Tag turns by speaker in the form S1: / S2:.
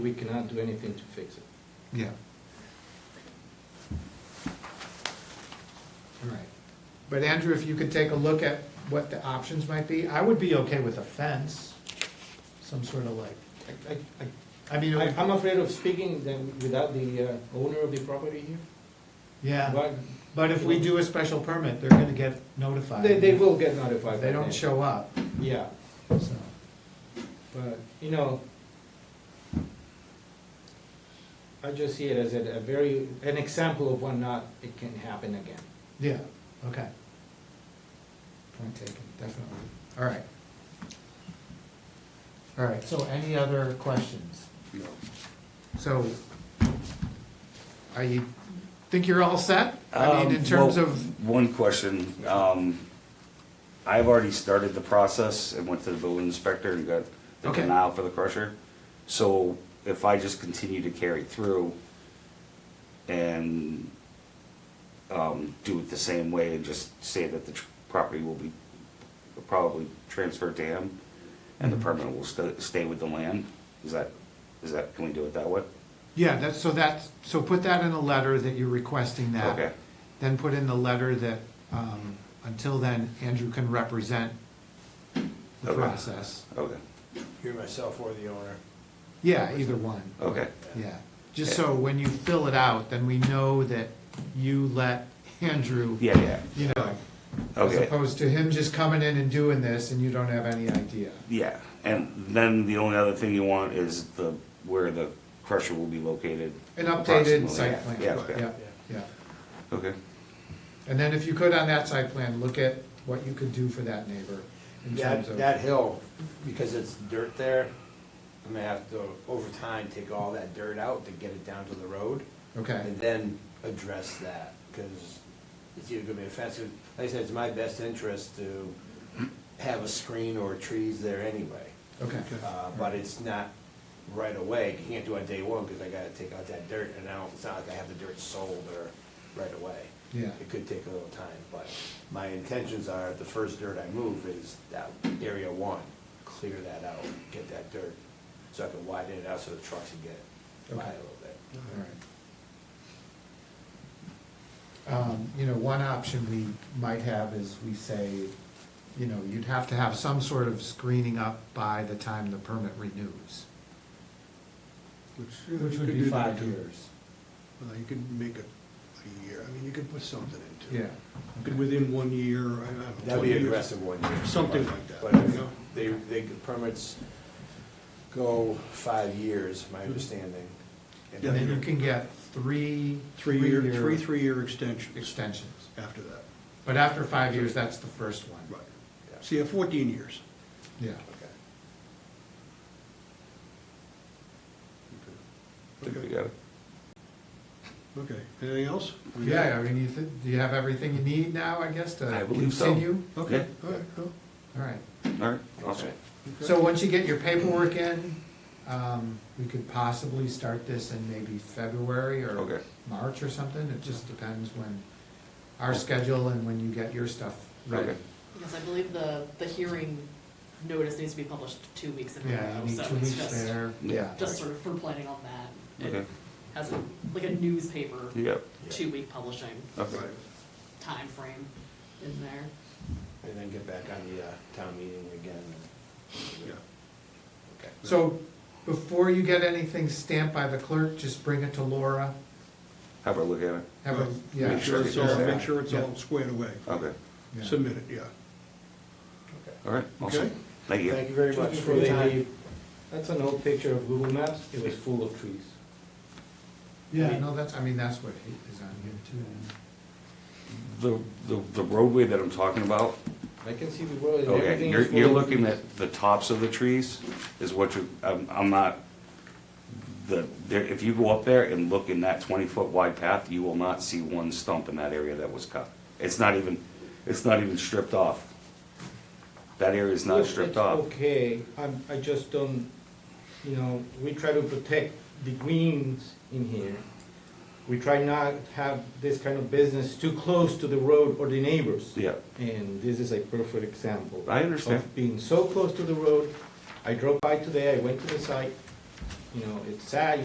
S1: We cannot do anything to fix it.
S2: Yeah. All right. But Andrew, if you could take a look at what the options might be, I would be okay with a fence, some sort of like,
S1: I- I- I-
S2: I mean, it
S1: I-
S2: would-
S1: I'm afraid of speaking then without the uh, owner of the property here.
S2: yeah,
S1: But
S2: but if we do a special permit, they're gonna get notified.
S1: They, they will get notified.
S2: If They
S1: by
S2: don't
S1: then.
S2: show up,
S1: Yeah,
S2: so,
S1: but, you know, I just see it as a a very, an example of when not, it can happen again.
S2: yeah, okay. Point taken, definitely, all right. All right, so any other questions?
S3: No.
S2: So, are you, think you're all set? I mean, in terms of,
S3: Um, One question, um, I've already started the process and went to the building inspector and got the
S2: Okay.
S3: denial for the crusher. So if I just continue to carry through and, um, do it the same way and just say that the tr- property will be probably transferred to him and the
S2: Mhm.
S3: permit will sta- stay with the land, is that, is that, can we do it that way?
S2: yeah, that's, so that's, so put that in a letter that you're requesting that.
S3: Okay.
S2: Then put in the letter that, um, until then, Andrew can represent the
S3: Okay.
S2: process.
S3: Okay,
S4: You're myself or the owner.
S2: Yeah, either one,
S3: okay,
S2: yeah. Just so when you fill it out, then we know that you let Andrew,
S3: yeah, yeah,
S2: you know, as
S3: okay.
S2: opposed to him just coming in and doing this and you don't have any idea.
S3: Yeah, and then the only other thing you want is the, where the crusher will be located.
S2: An updated
S3: approximately.
S2: site plan,
S3: Yeah, okay,
S2: yeah, yeah.
S3: okay,
S2: And then if you could on that site plan, look at what you could do for that neighbor in terms
S4: That,
S2: of.
S4: that hill, because it's dirt there, I'm gonna have to, over time, take all that dirt out to get it down to the road.
S2: Okay,
S4: And then address that, because it's either gonna be offensive, like I said, it's my best interest to have a screen or trees there anyway.
S2: okay.
S4: Uh, but it's not right away, you can't do it on day one, because I gotta take out that dirt, and I don't, it's not like I have the dirt sold or right away.
S2: Yeah.
S4: It could take a little time, but my intentions are, the first dirt I move is that area one, clear that out, get that dirt, so I can widen it out so the trucks can get by a
S2: Okay.
S4: little bit.
S2: All right. Um, you know, one option we might have is we say, you know, you'd have to have some sort of screening up by the time the permit renews.
S5: Which,
S2: Which would be five years.
S5: Well, you could make it a year, I mean, you could put something into
S2: Yeah,
S5: it. You could Within one year, I I don't know.
S4: That'd
S5: two
S4: be
S5: years.
S4: aggressive one year.
S5: Something like that,
S4: But if
S5: you know?
S4: they, they, permits go five years,
S5: Mm-hmm.
S4: my understanding. and
S2: and then
S4: then-
S2: you can get three.
S5: Three-year, three, three-year extensions
S2: Extensions.
S5: after that,
S2: But after five years, that's the first one.
S5: right.
S4: Yeah.
S5: See, uh, fourteen years.
S2: Yeah.
S4: Okay.
S3: I think we
S5: Okay,
S3: got it.
S5: okay, anything else? We got it?
S2: Yeah, I mean, you, thi- do you have everything you need now, I guess, to
S3: I
S2: continue?
S3: believe so.
S5: Okay, all right, cool.
S2: All right.
S3: All right, awesome.
S5: Okay.
S2: So once you get your paperwork in, um, we could possibly start this in maybe February
S3: Okay.
S2: or March or something. It just depends when, our schedule and when you get your stuff ready.
S3: Okay.
S6: Because I believe the, the hearing notice needs to be published two weeks in a
S2: Yeah,
S6: row,
S2: you need
S6: so
S2: two
S6: it's
S2: weeks
S6: just,
S2: there, yeah.
S6: just sort of for planning on that.
S3: Okay.
S6: It has a, like a newspaper,
S3: Yep,
S6: two-week publishing
S3: okay,
S5: Right.
S6: time frame in there.
S4: And then get back on the uh, town meeting again.
S5: Yeah.
S4: Okay.
S2: So before you get anything stamped by the clerk, just bring it to Laura.
S3: have a look at it,
S2: Have a,
S5: Right.
S2: yeah.
S5: Make sure it's all,
S3: Yeah.
S5: make sure it's all squared away.
S3: okay,
S2: Yeah.
S5: Submit it, yeah.
S3: all right, awesome.
S5: Okay.
S3: Thank you.
S4: Thank you very much
S1: Just
S4: for
S1: before
S4: your
S1: they
S4: time.
S1: leave, that's an old picture of Google Maps, it was full of trees.
S2: Yeah, no, that's, I mean, that's what is on here too.
S3: The, the, the roadway that I'm talking about,
S1: I can see the road,
S3: okay,
S1: everything
S3: you're,
S1: is full
S3: you're
S1: of
S3: looking
S1: trees.
S3: at the tops of the trees is what you, I'm, I'm not, the, there, if you go up there and look in that twenty-foot wide path, you will not see one stump in that area that was cut. It's not even, it's not even stripped off. That area is not
S1: Look,
S3: stripped
S1: it's
S3: off.
S1: Okay, I'm, I just don't, you know, we try to protect the greens in here. We try not have this kind of business too close to the road or the neighbors.
S3: Yeah,
S1: And this is a perfect example.
S3: I understand.
S1: Of being so close to the road, I drove by today, I went to the site, you know, it's sad,